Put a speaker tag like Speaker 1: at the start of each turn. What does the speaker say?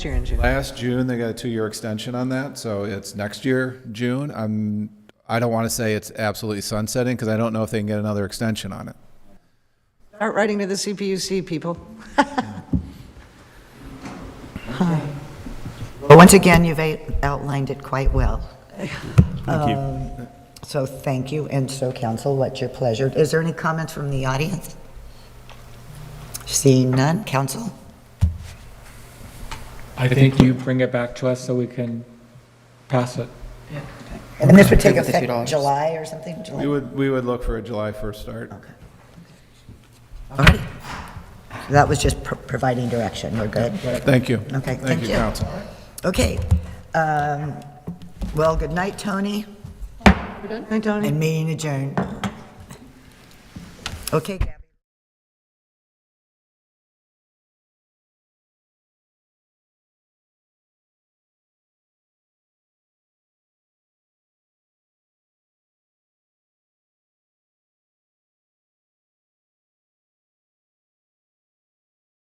Speaker 1: year in June.
Speaker 2: Last June, they got a two-year extension on that, so it's next year, June. I'm, I don't want to say it's absolutely sunsetting, because I don't know if they can get another extension on it.
Speaker 1: Start writing to the CPUC, people.
Speaker 3: But once again, you've a- outlined it quite well. Um,
Speaker 4: Thank you.
Speaker 3: So thank you, and so council, what's your pleasure? Is there any comments from the audience? Seeing none, council?
Speaker 5: I think you bring it back to us so we can pass it.
Speaker 3: And this would take
Speaker 6: With the
Speaker 3: effect
Speaker 6: $2.
Speaker 3: July or something? July?
Speaker 2: We would, we would look for a July 1st start.
Speaker 3: All right. So That was just pro- providing direction, we're good?
Speaker 2: Thank you.
Speaker 3: Okay,
Speaker 2: Thank you, council.
Speaker 3: Okay. Um, Well, good night, Tony,
Speaker 1: Hi, Tony.
Speaker 3: and meeting adjourned. Okay, Gavin.